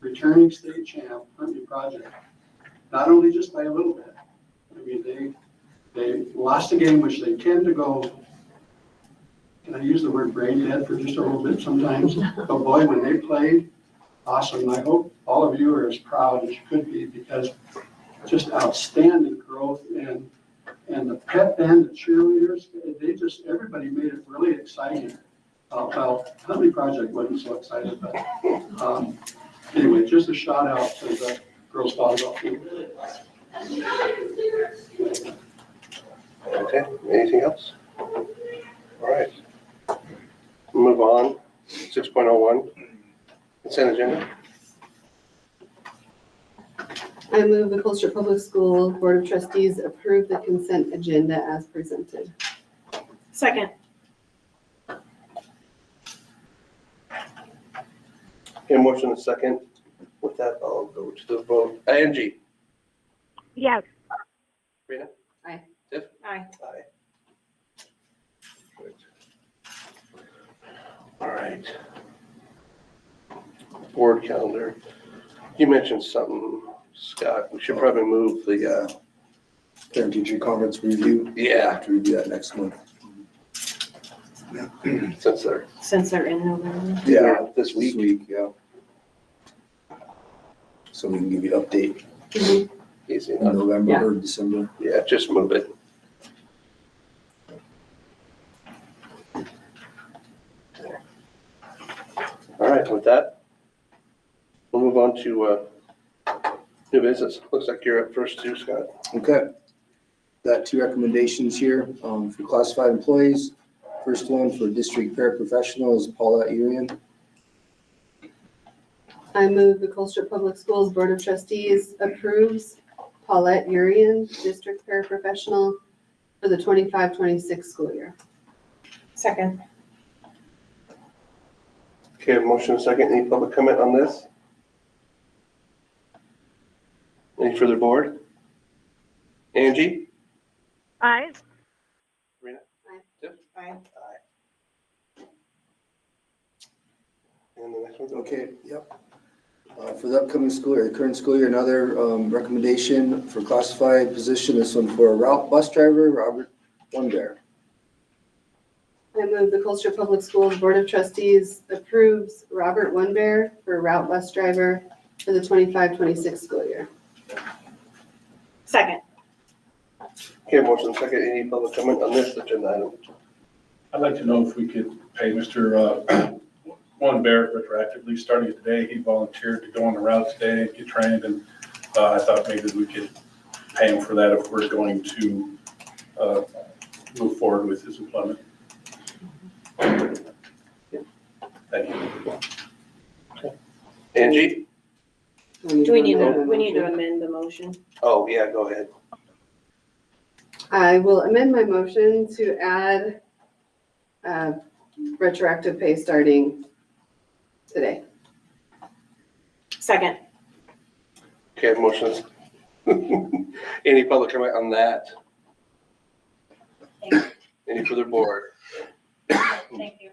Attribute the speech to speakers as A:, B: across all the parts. A: returning state champ Huntley project. Not only just by a little bit. I mean, they, they lost a game which they tend to go, can I use the word brain dead for just a little bit sometimes? But boy, when they played, awesome. I hope all of you are as proud as you could be because just outstanding growth and, and the pep band, the cheerleaders, they just, everybody made it really exciting. Uh, Well, Huntley Project wasn't so excited, but um, anyway, just a shout out to the girls volleyball team.
B: Okay, anything else? All right. Move on, six point oh one, consent agenda.
C: I move the Colchester Public School Board of Trustees approve the consent agenda as presented.
D: Second.
B: Okay, motion and second. With that, I'll go to the vote. Angie?
D: Yes.
B: Rena?
C: Aye.
B: Tiff?
D: Aye.
B: Aye. Good. All right. Board calendar. You mentioned something, Scott. We should probably move the, uh,
E: Parent teacher conference review,
B: yeah,
E: after we do that next month.
B: since they're,
D: Since they're in November.
B: yeah, this week.
E: yeah. So we can give you an update
B: Easy
E: in
B: enough.
E: November
D: Yeah.
E: or December.
B: Yeah, just move it. All right, with that, we'll move on to uh, new business. Looks like you're up first too, Scott.
E: Okay. Got two recommendations here, um, for classified employees. First one for district paraprofessional is Paula Urian.
C: I move the Colchester Public Schools Board of Trustees approves Paulette Urian, district paraprofessional for the 25-26 school year.
D: Second.
B: Okay, motion and second. Any public comment on this? Any further board? Angie?
F: Aye.
D: Aye.
B: And the next one's
E: Okay, yep. Uh, for the upcoming school year, the current school year, another, um, recommendation for classified position, this one for a route bus driver, Robert Wonder.
C: I move the Colchester Public Schools Board of Trustees approves Robert Wunbear for route bus driver for the 25-26 school year.
D: Second.
B: Okay, motion and second. Any public comment on this agenda item?
G: I'd like to know if we could pay Mr. uh, Juan Barrett retroactively, starting today. He volunteered to go on the route today and get trained, and uh, I thought maybe we could pay him for that if we're going to uh, move forward with his employment. Thank you.
B: Angie?
D: Do we need to, we need to amend the motion?
B: Oh, yeah, go ahead.
C: I will amend my motion to add uh, retroactive pay starting today.
D: Second.
B: Okay, motions. Any public comment on that? Any further board?
D: Thank you.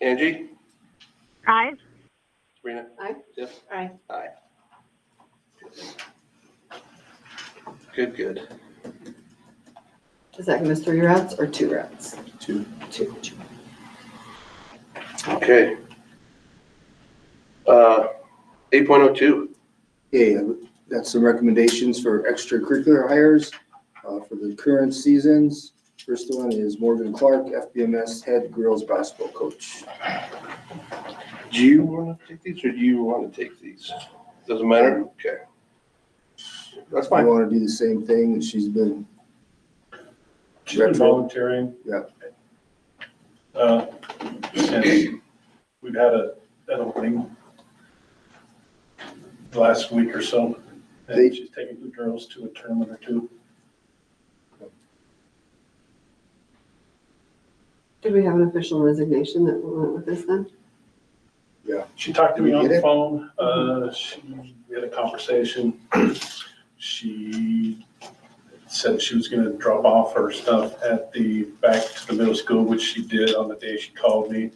B: Angie?
F: Aye.
B: Rena?
C: Aye.
B: Tiff?
D: Aye.
B: Aye. Good, good.
C: Does that give us three routes or two routes?
E: Two.
C: Two.
B: Okay. Uh, eight point oh two.
E: Yeah, that's some recommendations for extracurricular hires uh, for the current seasons. First one is Morgan Clark, FBMS head girls basketball coach.
B: Do you want to take these or do you want to take these? Doesn't matter? Okay. That's
E: I
B: fine.
E: want to do the same thing that she's been,
G: She's been
E: Retro.
G: volunteering.
E: Yeah.
G: Uh, Since we've had a, that opening the last week or so,
E: They-
G: and she's taking the girls to a tournament or two.
C: Did we have an official resignation that went with this then?
G: She talked to me on
E: Did Mm-hmm.
G: the
E: it?
G: phone, uh, she, we had a conversation. She said she was gonna drop off her stuff at the, back to the middle school, which she did on the day she called me.